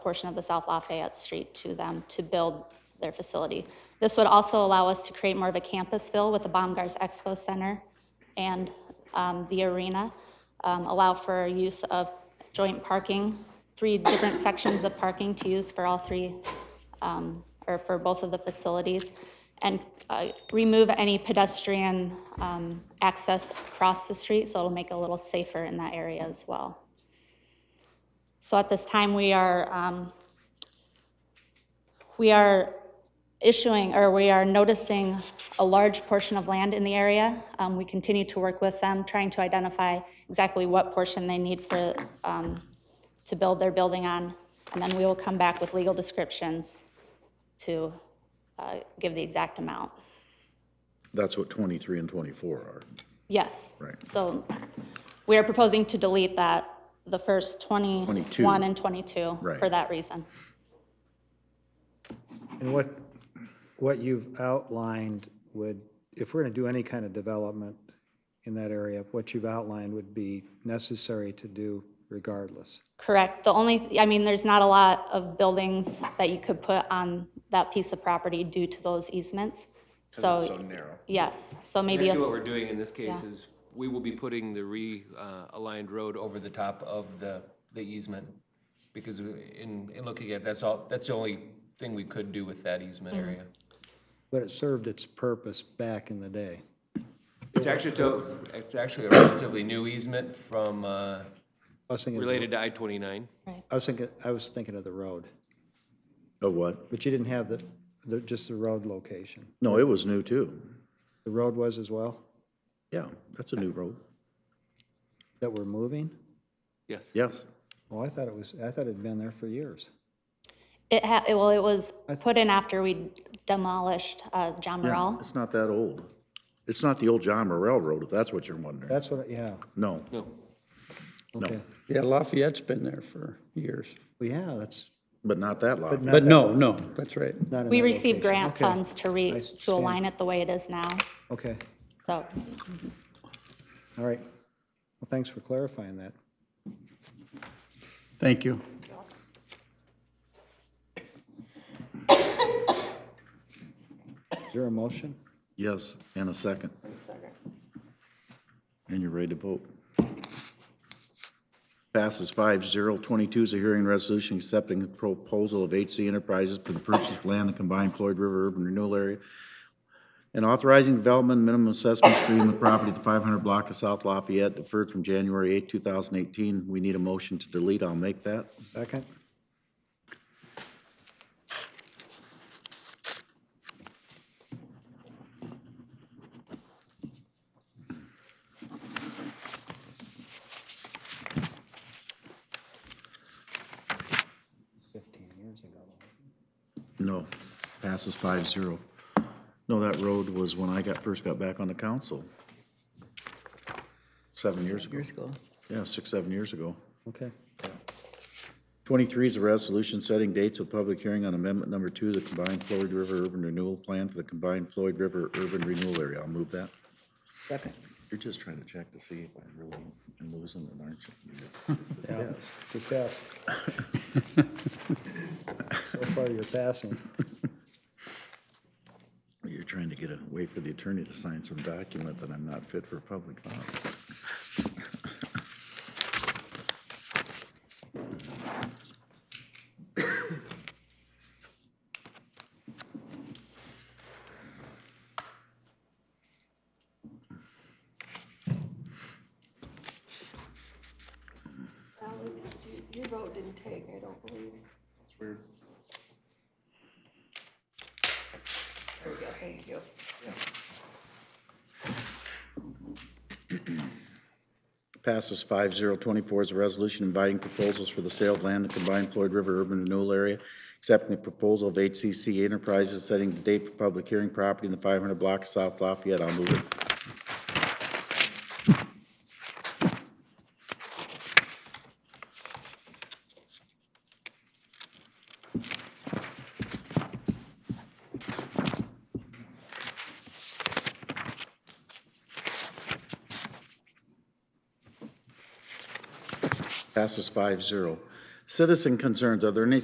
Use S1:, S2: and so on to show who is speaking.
S1: portion of the South Lafayette Street to them to build their facility. This would also allow us to create more of a campus feel with the Baumgars Expo Center and um, the arena, um, allow for use of joint parking, three different sections of parking to use for all three, um, or for both of the facilities, and uh, remove any pedestrian um, access across the street, so it'll make it a little safer in that area as well. So at this time, we are, um, we are issuing, or we are noticing a large portion of land in the area. Um, We continue to work with them, trying to identify exactly what portion they need for, um, to build their building on. And then we will come back with legal descriptions to uh, give the exact amount.
S2: That's what 23 and 24 are.
S1: Yes.
S2: Right.
S1: So we are proposing to delete that, the first
S2: 22.
S1: 21 and 22 for
S2: Right.
S1: that reason.
S3: And what, what you've outlined would, if we're going to do any kind of development in that area, what you've outlined would be necessary to do regardless.
S1: Correct. The only, I mean, there's not a lot of buildings that you could put on that piece of property due to those easements.
S4: so
S1: So,
S4: narrow.
S1: yes, so maybe, a
S5: Actually, what
S1: s-
S5: we're doing in this case
S1: yeah.
S5: is, we will be putting the realigned road over the top of the, the easement. Because we- in, in looking at, that's all, that's the only thing we could do with that easement
S1: Mm-hmm.
S5: area.
S3: But it served its purpose back in the day.
S5: It's actually, to- it's actually a relatively new easement from, uh,
S3: I was thinking,
S5: related to I-29.
S3: I was thinking, I was thinking of the road,
S2: Of what?
S3: but you didn't have the, the, just the road location.
S2: No, it was new too.
S3: The road was as well,
S2: Yeah, that's a new road.
S3: that we're moving?
S5: Yes.
S2: Yes.
S3: Well, I thought it was, I thought it'd been there for years.
S1: it ha, it- well, it was put in after we demolished uh, John
S2: Yeah,
S1: Morrell.
S2: It's not that old. It's not the old John Morrell Road, if that's what you're wondering.
S3: That's what, yeah,
S2: No,
S5: No,
S3: okay.
S6: Yeah, Lafayette's been there for years.
S3: Well, yeah, that's
S2: but not that lot.
S6: But no, no, that's right.
S3: not in
S1: We
S3: that
S1: received
S3: location.
S1: grant
S3: Okay,
S1: funds to
S3: I
S1: re, to
S3: understand.
S1: align it the way it is now.
S3: Okay.
S1: So,
S3: All right. Well, thanks for clarifying that.
S6: Thank you.
S3: Is there a motion?
S2: Yes, and a second. And you're ready to vote. Passes five zero. Twenty-two is a hearing resolution accepting the proposal of HC Enterprises for the purchase of land in the combined Floyd River Urban Renewal Area and authorizing development minimum assessment agreement with property at the five hundred block of South Lafayette deferred from January eighth, two thousand eighteen. We need a motion to delete. I'll make that.
S3: Second?
S2: No, passes five zero. No, that road was when I got, first got back on the council. Seven years ago. Years ago. Yeah, six, seven years ago.
S3: Okay.
S2: Twenty-three is a resolution setting dates of public hearing on amendment number two, the combined Floyd River Urban Renewal Plan for the combined Floyd River Urban Renewal Area. I'll move that.
S3: Second.
S2: You're just trying to check to see if I really am losing it, aren't you?
S3: Yeah, success. So far, you're passing.
S2: You're trying to get a, wait for the attorney to sign some document that I'm not fit for public office.
S7: Alex, you- your vote didn't take, I don't believe. That's weird. There we go, thank you.
S2: Passes 5-0. 24 is a resolution inviting proposals for the sale of land in the combined Floyd River Urban Renewal Area, accepting the proposal of HCC Enterprises setting the date for public hearing property in the five hundred block of South Lafayette. I'll move it. Passes 5-0. Citizen concerns. Are there any